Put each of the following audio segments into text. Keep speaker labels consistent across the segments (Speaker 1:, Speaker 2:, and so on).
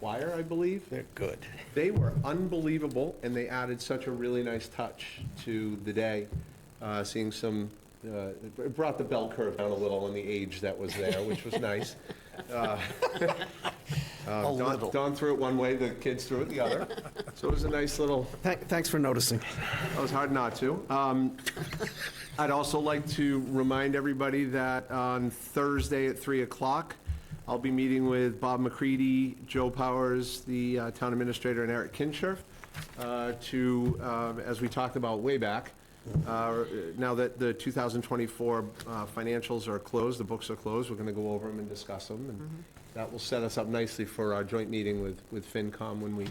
Speaker 1: Wire, I believe.
Speaker 2: They're good.
Speaker 1: They were unbelievable, and they added such a really nice touch to the day, Uh, seeing some, uh, it brought the bell curve down a little on the age that was there, which was nice. Uh,
Speaker 2: A
Speaker 1: Don-
Speaker 2: little.
Speaker 1: Don threw it one way, the kids threw it the other. So it was a nice little,
Speaker 2: Thank- Thanks for noticing.
Speaker 1: That was hard not to. Um, I'd also like to remind everybody that on Thursday at 3 o'clock, I'll be meeting with Bob McCready, Joe Powers, the uh, town administrator, and Eric Kincher uh, to, um, as we talked about way back, uh, now that the 2024 uh, financials are closed, the books are closed, we're going to go over them and discuss them. And that will set us up nicely for our joint meeting with, with FinCom when we,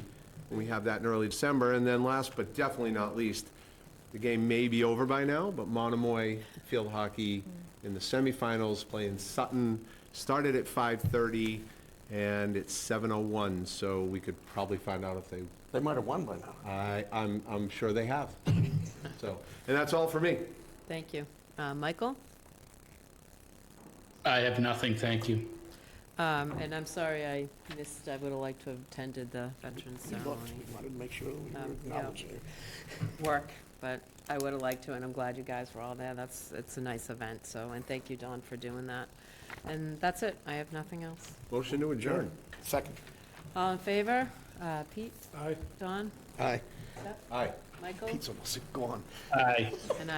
Speaker 1: when we have that in early December. And then last but definitely not least, the game may be over by now, but Monomoy Field Hockey in the semifinals playing Sutton, started at 5:30 and it's 7:01, so we could probably find out if they,
Speaker 2: They might have won by now.
Speaker 1: I, I'm, I'm sure they have. So, and that's all for me.
Speaker 3: Thank you. Uh, Michael?
Speaker 4: I have nothing, thank you.
Speaker 3: Um, And I'm sorry I missed, I would have liked to have attended the Veterans
Speaker 2: We
Speaker 3: Ceremony
Speaker 2: looked, we wanted to make sure that we
Speaker 3: Um,
Speaker 2: were
Speaker 3: yeah.
Speaker 2: acknowledging it.
Speaker 3: work, but I would have liked to, and I'm glad you guys were all there. That's, it's a nice event, so, and thank you, Don, for doing that. And that's it. I have nothing else.
Speaker 1: Motion to adjourn.
Speaker 2: Second.
Speaker 3: All in favor? Uh, Pete?
Speaker 2: Aye.
Speaker 3: Don?
Speaker 2: Aye.
Speaker 3: Seth?
Speaker 1: Aye.
Speaker 3: Michael?
Speaker 2: Pizza must have gone.
Speaker 4: Aye.
Speaker 3: And